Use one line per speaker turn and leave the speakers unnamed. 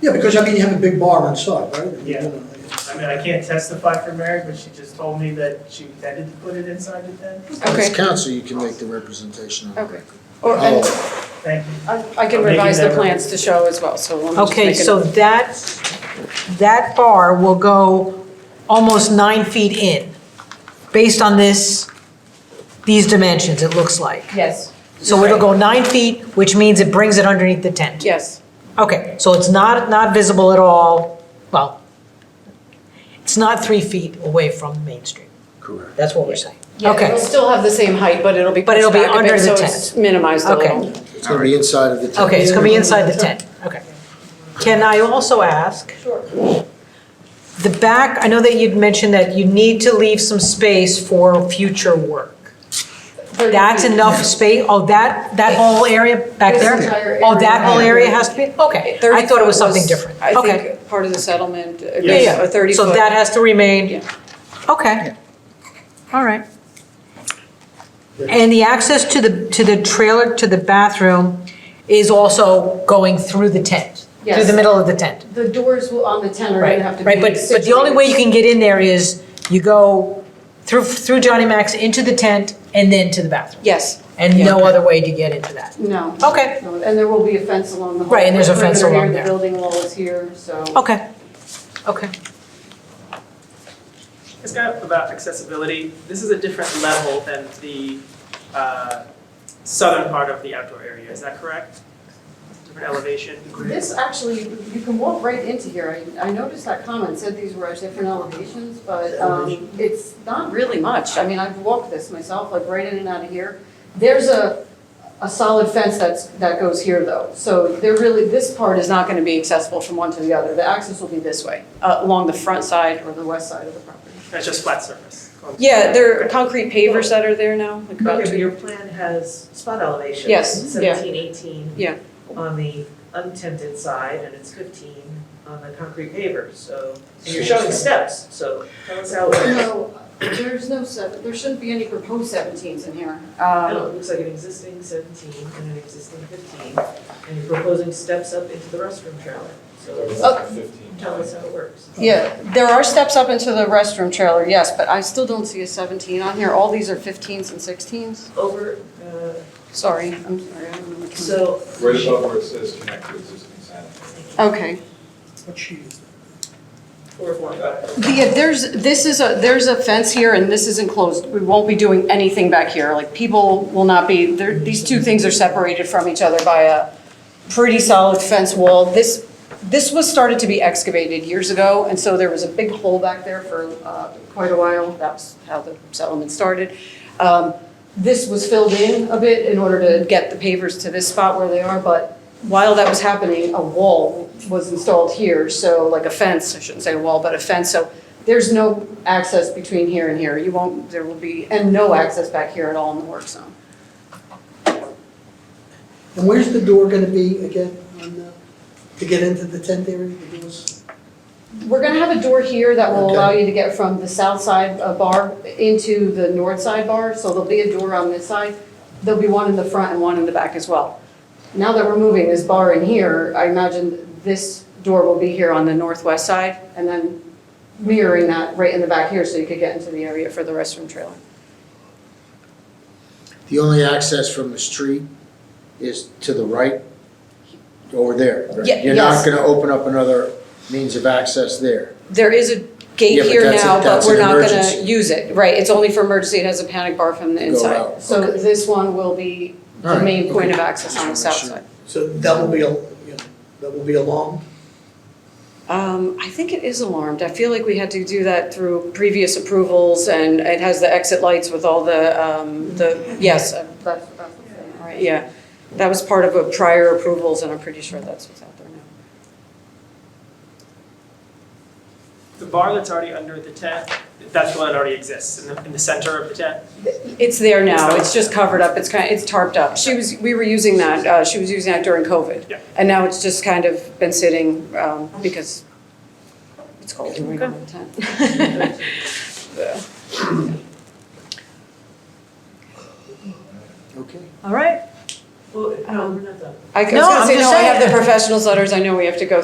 Yeah, because I mean, you have a big bar inside, right?
Yeah. I mean, I can't testify for Mary, but she just told me that she intended to put it inside the tent.
Okay,
As counsel, you can make the representation
Oh.
on
Okay.
the record.
or, and
Thank you.
I I can
I'll make
revise
it
the
that-
plans to show as well, so let me just
Okay,
make it-
so that, that bar will go almost nine feet in, based on this, these dimensions, it looks like.
Yes,
So it'll go nine feet, which means it brings it underneath the tent.
yes.
Okay, so it's not, not visible at all, well, it's not three feet away from Main Street.
Correct.
That's what we're saying.
Yeah,
Okay.
it'll still have the same height, but it'll be
But it'll
pushed
be
back a bit,
under
so
the
it's minimized a
Okay.
little.
It's gonna be inside of the tent.
Okay, it's gonna be inside the tent, okay. Can I also ask?
Sure.
The back, I know that you'd mentioned that you need to leave some space for future work.
Thirty
That's
feet.
enough space, oh, that, that whole area back
This
there?
entire
Oh, that
area.
whole area has to be, okay,
Thirty
I thought it was
foot
something different,
I
okay.
think part of the settlement, uh,
Yeah,
was a thirty
So
foot.
that has to
Yeah.
remain, okay, all right. And the access to the, to the trailer, to the bathroom is also going through the tent? Through
Yes.
the middle of the tent?
The doors will, on the tent are
Right,
gonna have to be.
right, but, but the only way you can get in there is you go through, through Johnny Max into the tent and then to the bathroom.
Yes,
And
Yeah.
no other way to get into that.
No.
Okay.
No, And there will be a fence along the whole.
Right, and there's a fence
perimeter
along
here,
there.
The building wall is here, so.
Okay, okay.
It's kind of about accessibility. This is a different level than the uh, southern part of the outdoor area, is that correct? Different elevation?
This actually, you can walk right into here. I, I noticed that comment said these were at different elevations, but, um, it's not really much. I mean, I've walked this myself, like right in and out of here. There's a, a solid fence that's, that goes here though. So there really, this part is not gonna be accessible from one to the other. The access will be this way, uh, along the front side or the west side of the property.
That's just flat surface.
yeah, there are concrete pavers that are there now, like about
Okay, but
two.
your plan has spot elevation.
Yes, yeah.
Seventeen, eighteen.
Yeah.
On the untented side, and it's fifteen on the concrete pavers, so, and you're
So-
showing steps, so tell us how, I
No, there's no seven, there shouldn't be any proposed seventeens in here.
know,
Um,
it looks like an existing seventeen and an existing fifteen, and you're proposing steps up into the restroom trailer, so
Oh.
tell us how it works.
Yeah, there are steps up into the restroom trailer, yes, but I still don't see a seventeen on here. All these are fifteens and sixteens.
Over, uh,
Sorry, I'm sorry, I don't know. what kind
so.
Right above where it says connect to existing sanitary.
of- Okay,
What she is.
Four, four, five.
yeah, there's, this is a, there's a fence here and this is enclosed. We won't be doing anything back here. Like, people will not be, there, these two things are separated from each other by a pretty solid fence wall. This, this was started to be excavated years ago, and so there was a big hole back there for uh, quite a while. That's how the settlement started. Um, This was filled in a bit in order to get the pavers to this spot where they are, but while that was happening, a wall was installed here, so like a fence, I shouldn't say a wall, but a fence, so there's no access between here and here. You won't, there will be, and no access back here at all in the work zone.
And where's the door gonna be again, on, uh, to get into the tent area, the doors?
We're gonna have a door here that will allow
Okay.
you to get from the south side uh, bar into the north side bar, so there'll be a door on this side. There'll be one in the front and one in the back as well. Now that we're moving this bar in here, I imagine this door will be here on the northwest side, and then mirroring that right in the back here, so you could get into the area for the restroom trailer.
The only access from the street is to the right, over there, right?
Ye-
You're not
yes.
gonna open up another means of access there.
There is a
Yeah,
gate
but
here
that's a-
now, but
that's
we're
an
not gonna
emergency.
use it, right, it's only for emergency, it has a panic bar from the
Go
inside.
out.
So this one will be
All
the
right,
main point
okay.
of access on the
Just wanna
south
make sure.
side.
So that will be, a- you know, that will be alarmed?
Um, I think it is alarmed, I feel like we had to do that through previous approvals, and it has the exit lights with all the, um, the, yes, uh,
That's, that's the thing, right?
yeah. That was part of a prior approvals, and I'm pretty sure that's what's out there now.
The bar that's already under the tent, that's the one that already exists in the, in the center of the tent.
It's there now, it's just covered up, it's kind, it's tarped up. She was, we were using that, uh, she was using that during COVID.
Yeah.
And now it's just kind of been sitting, um, because it's cold and we don't have a tent.
Okay.
All right.
Well, no, we're not done.
I was
No,
gonna
I'm
say, no,
just
I have
saying.
the professionals letters, I know we have to go